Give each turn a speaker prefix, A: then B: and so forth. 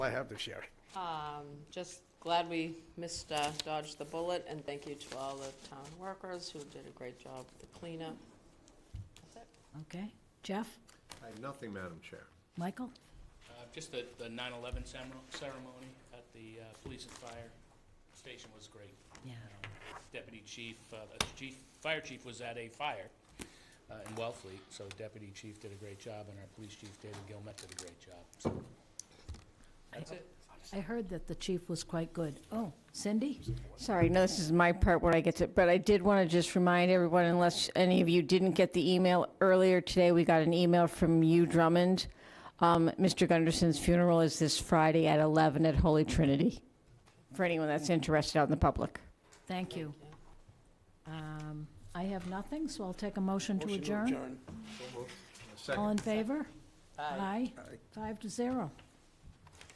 A: I have to share.
B: Um, Just glad we missed, uh, dodged the bullet, and thank you to all the town workers who did a great job with the cleanup. That's it.
C: Okay. Jeff?
D: I have nothing, Madam Chair.
C: Michael?
E: Uh, Just the, the 9/11 cemo- ceremony at the uh, police and fire station was great.
C: Yeah.
E: Um, Deputy chief, uh, the chief, fire chief was at a fire uh, in Wellfleet, so deputy chief did a great job, and our police chief, David Gilmet, did a great job. So That's it.
C: I heard that the chief was quite good. Oh, Cindy?
F: Sorry, no, this is my part where I get to, but I did want to just remind everyone, unless any of you didn't get the email earlier today, we got an email from you, Drummond. Um, Mr. Gunderson's funeral is this Friday at 11 at Holy Trinity, for anyone that's interested out in the public.
C: Thank you. Um, I have nothing, so I'll take a motion to
A: Motion
C: adjourn.
A: adjourn.
C: All
D: Second.
C: in favor? Aye. Five to zero.